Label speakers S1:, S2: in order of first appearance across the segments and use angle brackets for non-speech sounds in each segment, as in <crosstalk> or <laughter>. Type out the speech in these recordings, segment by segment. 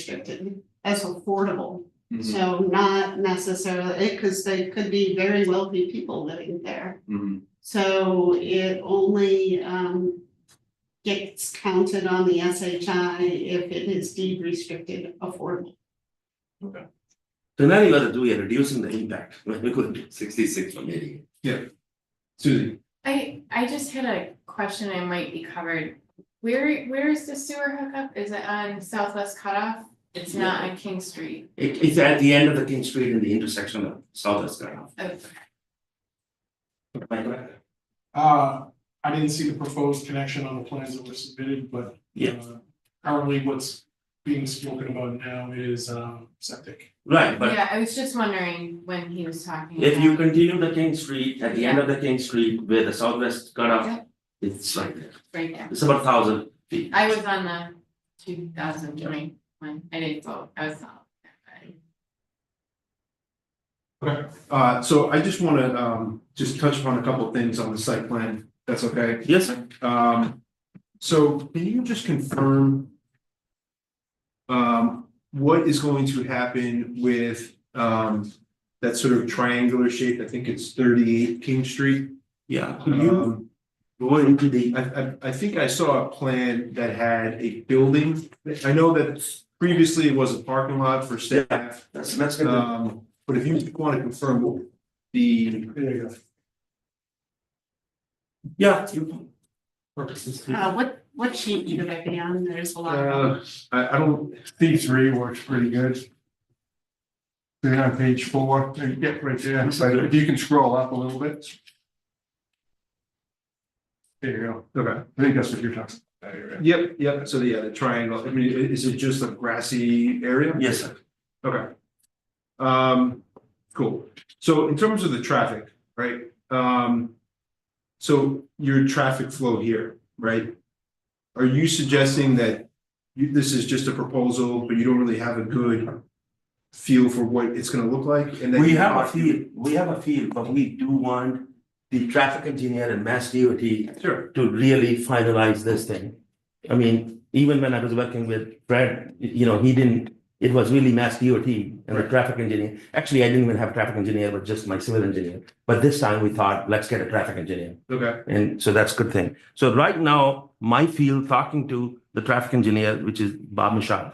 S1: restricted as affordable.
S2: Mhm,
S1: So not necessarily, because they could be very wealthy people living there.
S2: mhm.
S1: So it only um gets counted on the SHI if it is deed restricted affordable.
S3: So now you gotta do, you're reducing the impact, <laughs> like we could.
S2: Sixty-six from eighty.
S3: Susie.
S4: I I just had a question I might be covered. Where where is the sewer hookup? Is it on Southwest Cutoff? It's not on King Street.
S3: It is at the end of the King Street in the intersection of Southwest Grand.
S4: Oh,
S5: Uh, I didn't see the proposed connection on the plans that were submitted, but.
S3: Yeah.
S5: uh, Currently, what's being spoken about now is, um, septic.
S3: Right, but
S4: Yeah, I was just wondering when he was talking
S3: if you
S4: about-
S3: continue the King Street, at the end of the King Street where the Southwest
S4: Yeah.
S3: cutoff. It's right there,
S4: right there.
S3: it's about thousand feet.
S4: I was on the two thousand twenty one. I didn't vote. I was not.
S6: Uh, so I just wanna, um, just touch upon a couple things on the site plan, that's okay,
S3: Yes, sir,
S6: um, so can you just confirm? Um, what is going to happen with, um, that sort of triangular shape, I think it's thirty-eight King Street?
S3: yeah, could you
S6: Um,
S3: go into the,
S6: I, I, I think I saw a plan that had a building, I know that previously it was a parking lot for staff.
S3: that's that's gonna,
S6: Um, but if you want to confirm what the.
S5: There you go.
S3: yeah, you.
S1: Uh what what sheet you would be on, there's a lot. of-
S6: Uh, I, I don't,
S5: C three works pretty good. Then on page four, and get uh, right there, so if you can scroll up a little bit. There you go,
S6: okay,
S5: I think that's what you're talking about.
S6: yep, yep, so the, yeah, the triangle, I mean, i- is it just a grassy area?
S3: Yes, sir,
S6: Okay. Um, cool, so in terms of the traffic, right, um. So your traffic flow here, right? Are you suggesting that you, this is just a proposal, but you don't really have a good. Feel for what it's gonna look like and then.
S3: we
S6: you-
S3: have a field, we have a field, but we do want the traffic engineer and mass DOT
S6: Sure.
S3: to really finalize this thing. I mean, even when I was working with Brad, y- you know, he didn't, it was really mass DOT and a traffic engineer. Actually, I didn't even have a traffic engineer, but just my civil engineer. But this time we thought, let's get a traffic engineer.
S6: Okay,
S3: And so that's a good thing. So right now, my field talking to the traffic engineer, which is Bob Michaud,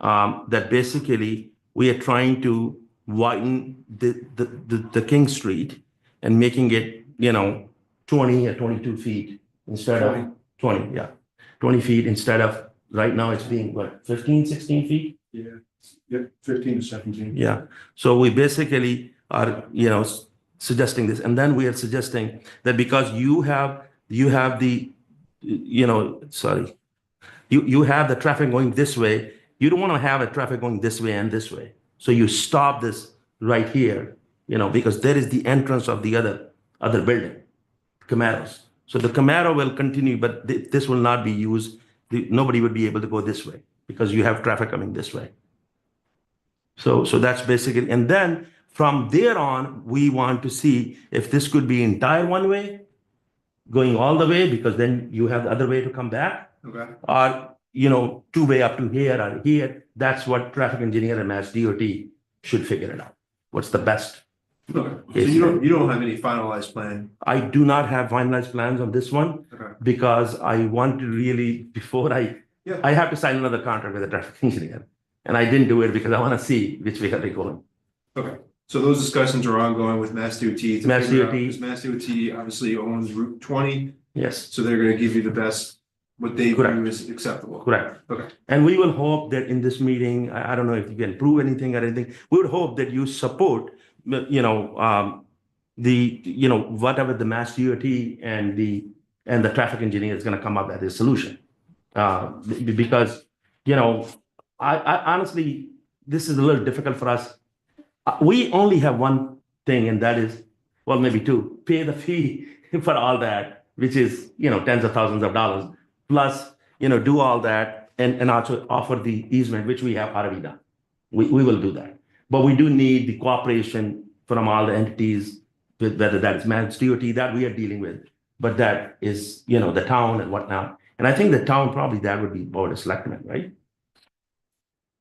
S3: um, that basically we are trying to widen the, the, the, the King Street and making it, you know, twenty or twenty-two feet instead of twenty, yeah. Twenty feet instead of, right now it's being what, 15, 16 feet?
S6: yep, fifteen to seventeen.
S3: Yeah, so we basically are, you know, s- suggesting this, and then we are suggesting that because you have, you have the, you know, sorry. You, you have the traffic going this way, you don't want to have a traffic going this way and this way. So you stop this right here, you know, because there is the entrance of the other, other building, Camaros. So the Camaro will continue, but thi- this will not be used, The- nobody would be able to go this way, because you have traffic coming this way. So, so that's basically, and then from there on, we want to see if this could be entire one way, going all the way, because then you have the other way to come back,
S6: Okay,
S3: or, you know, two way up to here or here. That's what traffic engineer and Mass DOT should figure it out. What's the best?
S6: okay, so
S3: Yes.
S6: you don't, you don't have any finalized plan,
S3: I do not have finalized plans on this one
S6: okay,
S3: because I want to really, before I,
S6: Yeah.
S3: I have to sign another contract with a traffic <laughs> engineer. And I didn't do it because I want to see which way are they going.
S6: so those discussions are ongoing with Mass DOT. to
S3: Mass
S6: figure
S3: DOT.
S6: out- Because Mass DOT obviously owns Route twenty,
S3: Yes.
S6: so they're gonna give you the best, what they view
S3: Correct.
S6: is acceptable.
S3: Correct.
S6: Okay.
S3: And we will hope that in this meeting, I, I don't know if you can prove anything or anything, we would hope that you support, uh, you know, um, the, you know, whatever the mass DOT and the, and the traffic engineer is gonna come up with a solution. Uh, be- because, you know, I, I honestly, this is a little difficult for us. Uh, We only have one thing and that is, well, maybe two, pay the fee <laughs> for all that, which is, you know, tens of thousands of dollars. Plus, you know, do all that and, and also offer the easement, which we have already done. We, we will do that. But we do need the cooperation from all the entities, with whether that is managed DOT that we are dealing with, but that is, you know, the town and whatnot. And I think the town probably that would be board of selectmen, right?